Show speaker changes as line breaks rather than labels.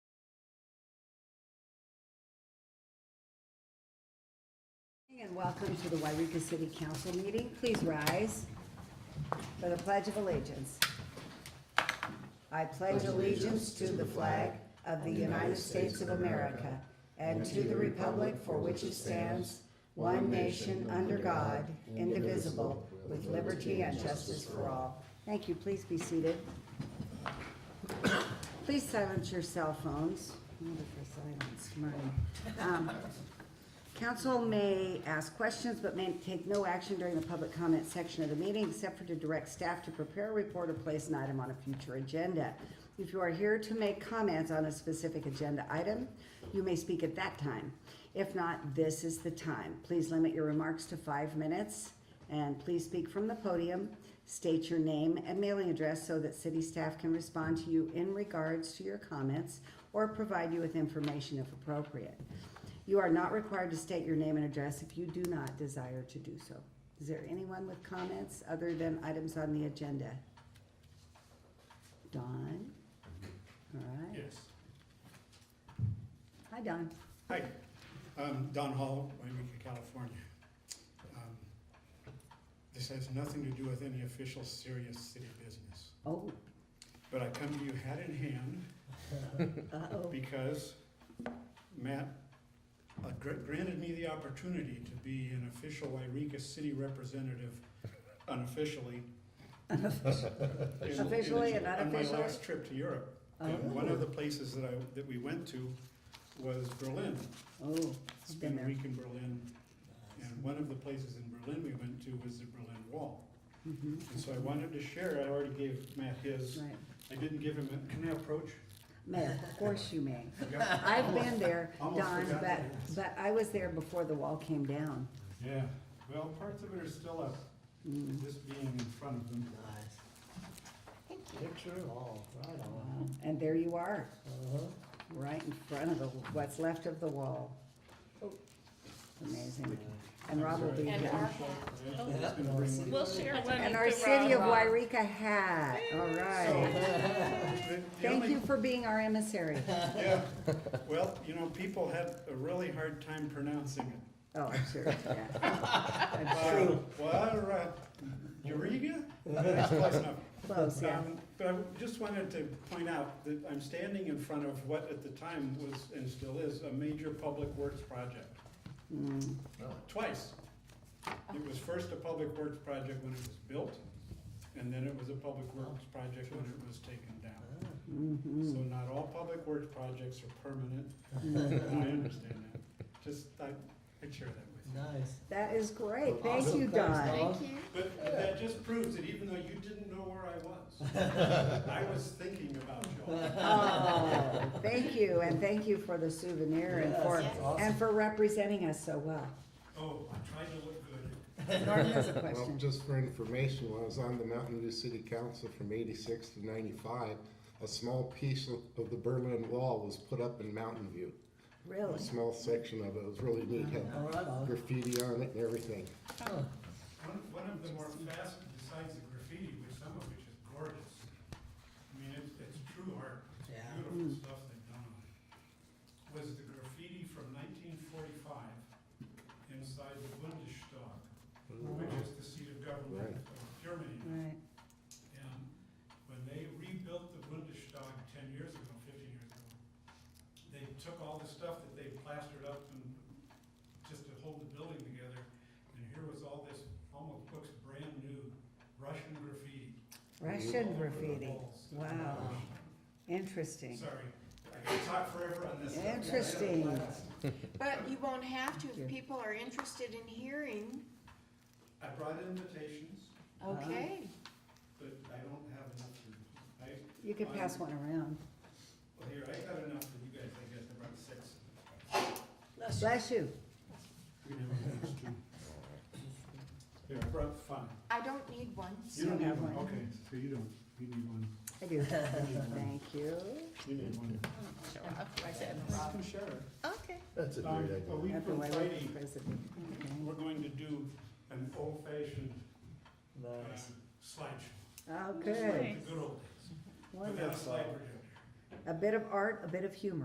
And welcome to the Wairika City Council meeting. Please rise for the Pledge of Allegiance. I pledge allegiance to the flag of the United States of America and to the republic for which it stands, one nation, under God, indivisible, with liberty and justice for all. Thank you. Please be seated. Please silence your cell phones. I wonder if I silenced mine. Um, Council may ask questions but may take no action during the public comment section of the meeting except for to direct staff to prepare a report or place an item on a future agenda. If you are here to make comments on a specific agenda item, you may speak at that time. If not, this is the time. Please limit your remarks to five minutes and please speak from the podium. State your name and mailing address so that city staff can respond to you in regards to your comments or provide you with information if appropriate. You are not required to state your name and address if you do not desire to do so. Is there anyone with comments other than items on the agenda? Don? All right.
Yes.
Hi, Don.
Hi, I'm Don Hall, Waimika, California. Um, This has nothing to do with any official serious city business,
Oh,
but I come to you hat in hand
uh-oh.
because Matt uh, gr- granted me the opportunity to be an official Wairika city representative unofficially. in- in-
Officially and
On my
unofficially? Oh.
last trip to Europe. And one of the places that I, that we went to was Berlin.
Oh, I've been
Spent a
there.
week in Berlin uh, And one of the places in Berlin we went to was the Berlin Wall.
Mhm,
And so I wanted to share, I already gave Matt his,
Right.
I didn't give him, a- can I approach?
May, of course you may.
Yeah.
I've been there,
Almost
Don, but,
forgot that.
but I was there before the wall came down.
Yeah, well, parts of it are still up,
Mm,
this being in front of them.
Picture and all, right on.
wow. And there you are,
Uh-huh.
right in front of the, what's left of the wall.
Oh.
Amazing. And Rob will be
And
here.
our
Yeah,
Oh.
I was gonna bring one.
We'll share one.
And
with
our
the
city of
Rob.
Wairika hat, all right.
So, the- the
Thank
only-
you for being our emissary.
Yeah, well, you know, people had a really hard time pronouncing it.
Oh, I'm sure, yeah. I'm sure.
True. Well, Eureka? That's close enough.
Close, yeah.
Um, But I just wanted to point out that I'm standing in front of what at the time was, and still is, a major public works project.
Mm,
Twice. It was first a public works project when it was built, and then it was a public works project when it was taken down.
mhm.
So not all public works projects are permanent,
Mm.
I understand that. Just, I, I'd share that with you.
Nice.
That is great, thank
Awesome.
you,
Thanks,
Don.
Don.
Thank you.
But but that just proves that even though you didn't know where I was, I was thinking about you.
Oh, thank you, and thank you for the souvenir and
Yes,
for,
that's awesome.
and for representing us so well.
Oh, I tried to look good.
Norton has a
Well,
question.
just for information, when I was on the Mountain View City Council from eighty-six to ninety-five, a small piece of, of the Berlin Wall was put up in Mountain View. A
Really? Uh-huh.
small section of it, it was really neat, had
All right on.
graffiti on it and everything.
Huh.
One, one of the more fast, besides the graffiti, which some of which is gorgeous. I mean, it's, it's true art, it's
Yeah.
beautiful stuff they've done on it. Was the graffiti from nineteen forty-five inside the Bundestag, which is the seat of government
Right.
of Germany.
Right,
And when they rebuilt the Bundestag ten years ago, fifteen years ago, they took all the stuff that they plastered up and just to hold the building together, and here was all this, almost looks brand new Russian graffiti.
Russian
all over the
graffiti,
walls.
wow, interesting.
Sorry, I could talk forever on this. subject.
Interesting.
But you won't have to
Yeah.
if people are interested in hearing.
I brought invitations,
Okay.
but I don't have enough to, I,
You could pass one around.
well, here, I got enough for you guys, I guess, I brought six.
Bless you.
You can have yours, too. Here, I brought five.
I don't need one.
You don't
Still
have
have
one,
one.
okay, so you don't, you need one,
I do. Thank you.
you need one.
Okay.
That's
Um, A week
After
from
my
Friday,
president. Okay.
we're going to do an old fashioned
Nice.
Oh,
slideshow. Just like
good,
The good old days, without a
wonderful.
slide projector.
A bit of art, a bit of humor.